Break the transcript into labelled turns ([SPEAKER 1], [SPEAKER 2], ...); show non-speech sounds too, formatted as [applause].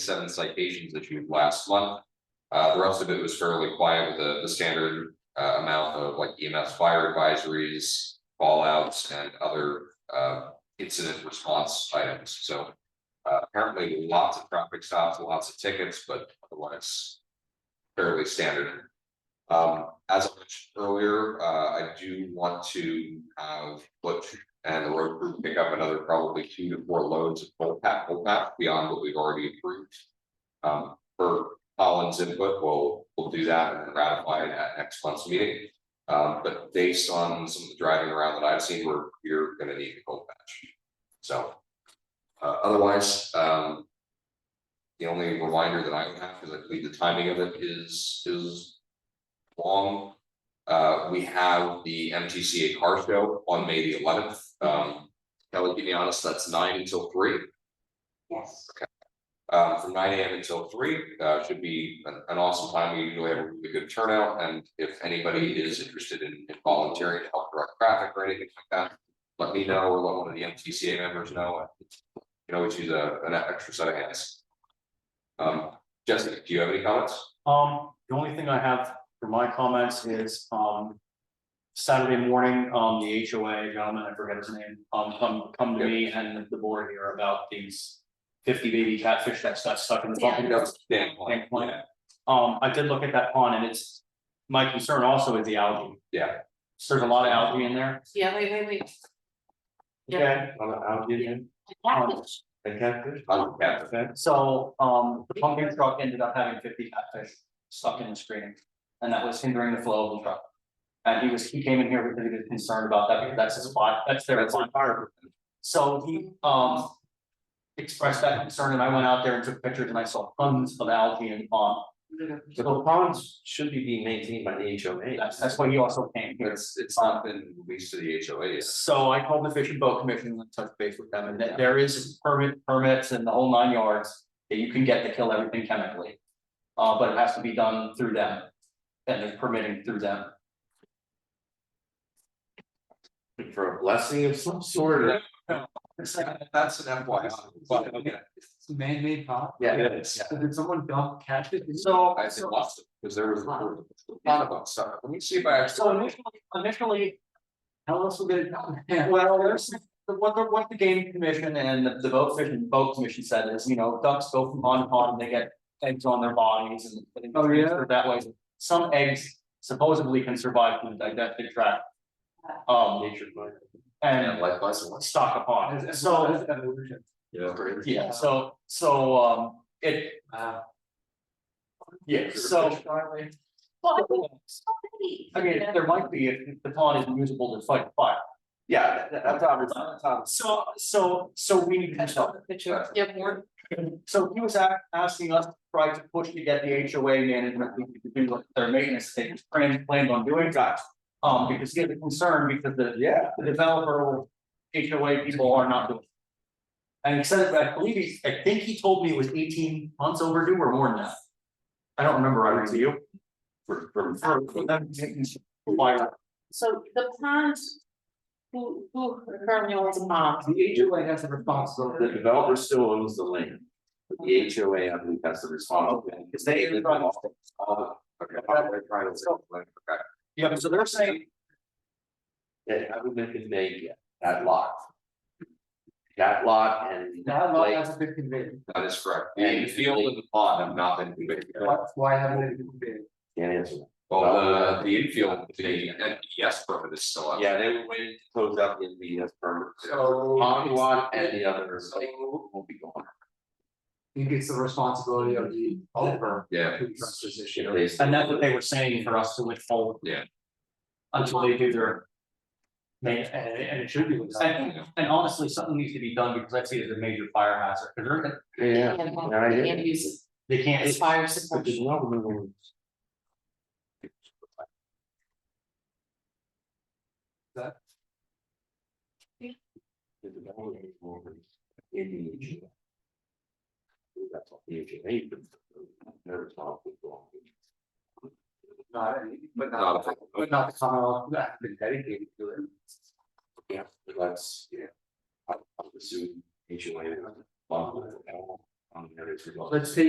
[SPEAKER 1] seven citations issued last month. Uh, the rest of it was fairly quiet with the, the standard, uh, amount of like EMS fire advisories, fallouts and other, uh, incident response items, so. Uh, apparently lots of traffic stops, lots of tickets, but otherwise fairly standard. Um, as I mentioned earlier, uh, I do want to have Butch and the road crew pick up another probably two to four loads of full pack, full pack beyond what we've already approved. Um, for Colin's input, we'll, we'll do that and then ratify it at next month's meeting. Um, but based on some of the driving around that I've seen, we're, we're gonna need a cold patch. So, uh, otherwise, um. The only reminder that I would have, because I believe the timing of it is, is long. Uh, we have the MTCA car show on May the eleventh. Um, Kelly, to be honest, that's nine until three.
[SPEAKER 2] Yes,
[SPEAKER 1] Uh, from nine AM until three, uh, should be an, an awesome time. We usually have a really good turnout and if anybody is interested in in volunteering to help direct traffic or anything like that. Let me know or let one of the MTCA members know. You can always use a, an extra set of hands. Um, Jessica, do you have any comments?
[SPEAKER 3] Um, the only thing I have for my comments is, um. Saturday morning, um, the HOA gentleman, I forget his name, um, come, come to me and the board here about these. Fifty baby catfish that's got stuck in the
[SPEAKER 2] Yeah.
[SPEAKER 3] bucket.
[SPEAKER 1] No, Dan,
[SPEAKER 3] Thank you. Um, I did look at that pond and it's, my concern also is the algae.
[SPEAKER 1] Yeah.
[SPEAKER 3] So There's a lot of algae in there.
[SPEAKER 2] yeah, wait, wait, wait.
[SPEAKER 3] Okay.
[SPEAKER 4] algae in, Oh.
[SPEAKER 2] Catfish.
[SPEAKER 4] a catfish?
[SPEAKER 1] I'm Catherine.
[SPEAKER 3] So, um, the pumpkin truck ended up having fifty catfish stuck in the screen, and that was hindering the flow of the truck. And he was, he came in here because he was concerned about that, because that's his spot, that's their
[SPEAKER 1] That's
[SPEAKER 3] spot. So he, um. Expressed that concern, and I went out there and took pictures, and I saw tons of algae and, um,
[SPEAKER 4] The ponds should be being maintained by the HOA.
[SPEAKER 3] that's, that's why he also came here.
[SPEAKER 1] It's, it's not been released to the HOA yet.
[SPEAKER 3] So I called the Fish and Boat Commission and touched base with them, and that there is permit, permits and the whole nine yards that you can get to kill everything chemically. Uh, but it has to be done through them, and they're permitting through them.
[SPEAKER 4] For a blessing of some sort or.
[SPEAKER 1] That's an FYI. But, okay,
[SPEAKER 3] man-made pond.
[SPEAKER 4] Yeah, it is.
[SPEAKER 3] Did someone dump catfish? So,
[SPEAKER 1] I said lots of, because there was there was a lot of us, so let me see if I
[SPEAKER 3] so
[SPEAKER 1] actually.
[SPEAKER 3] initially, initially. How else would it? Well, there's, what the, what the game commission and the- the boat fish and boat commission said is, you know, ducks go from pond to pond, they get eggs on their bodies and. and
[SPEAKER 4] Oh, yeah?
[SPEAKER 3] transfer That way, some eggs supposedly can survive through the digestive tract. Um,
[SPEAKER 4] Nature. boy.
[SPEAKER 1] And
[SPEAKER 3] and
[SPEAKER 1] life lesson was.
[SPEAKER 3] stock upon, so,
[SPEAKER 4] Yeah.
[SPEAKER 3] yeah, so, so, um, it, yeah, so. [laughs]
[SPEAKER 2] Well, I think it's so many.
[SPEAKER 3] I mean, there might be, if if the pond is usable to fight fire,
[SPEAKER 4] Yeah, that- that's obvious, that's obvious.
[SPEAKER 3] Um, so, so, so we need to help.
[SPEAKER 2] Picture, yeah, more.
[SPEAKER 3] So he was a- asking us to try to push to get the HOA management to do what their maintenance they planned planned on doing. Um, because he had a concern because the
[SPEAKER 4] Yeah.
[SPEAKER 3] the developer or HOA people are not doing. it. And he said, I believe he, I think he told me it was eighteen months overdue or more than that. I don't remember, I review.
[SPEAKER 4] For for
[SPEAKER 3] For for them taking fire.
[SPEAKER 2] So the ponds. Who, who currently owns a pond?
[SPEAKER 4] the HOA has the responsibility. The developer still owns the land. But the HOA, I believe, has the responsibility, because they.
[SPEAKER 3] They're trying to-
[SPEAKER 4] Oh,
[SPEAKER 1] Okay, I'm trying to say, like, okay.
[SPEAKER 3] Yeah, so they're saying,
[SPEAKER 4] Yeah, I would make it make that lot. That lot and.
[SPEAKER 5] That lot
[SPEAKER 4] like,
[SPEAKER 5] hasn't been conveyed,
[SPEAKER 1] That is correct. The field and the pond have not been conveyed yet.
[SPEAKER 5] that's why I haven't been conveyed.
[SPEAKER 4] Can't answer that.
[SPEAKER 1] Well, the, the infield, the NPS permit is still out.
[SPEAKER 4] Yeah, they were waiting to close out the NVS permit.
[SPEAKER 5] So
[SPEAKER 4] Pond lot and the others, like, will be gone.
[SPEAKER 5] I think it's the responsibility of the owner
[SPEAKER 1] Yeah,
[SPEAKER 5] to address this issue.
[SPEAKER 4] They still-
[SPEAKER 3] and that's what they were saying for us to withhold.
[SPEAKER 1] Yeah.
[SPEAKER 3] Until they do their. They, and, and it should be, and, and honestly, something needs to be done because I see it as a major fire hazard, because they're, gonna-
[SPEAKER 4] Yeah,
[SPEAKER 2] And
[SPEAKER 4] yeah, I hear
[SPEAKER 2] and
[SPEAKER 4] you.
[SPEAKER 2] uses
[SPEAKER 3] they can't.
[SPEAKER 2] as fire
[SPEAKER 4] But there's
[SPEAKER 2] suppression.
[SPEAKER 4] no removal.
[SPEAKER 5] That-
[SPEAKER 2] Yeah.
[SPEAKER 4] The development is over in the HOA. That's what the HOA, but they're responsible for.
[SPEAKER 5] Not, but
[SPEAKER 1] not-
[SPEAKER 5] not, but not the Commonwealth that has been dedicated to it.
[SPEAKER 4] Yeah, but that's, yeah. I I would assume HOA.
[SPEAKER 6] on the other two.
[SPEAKER 4] Let's take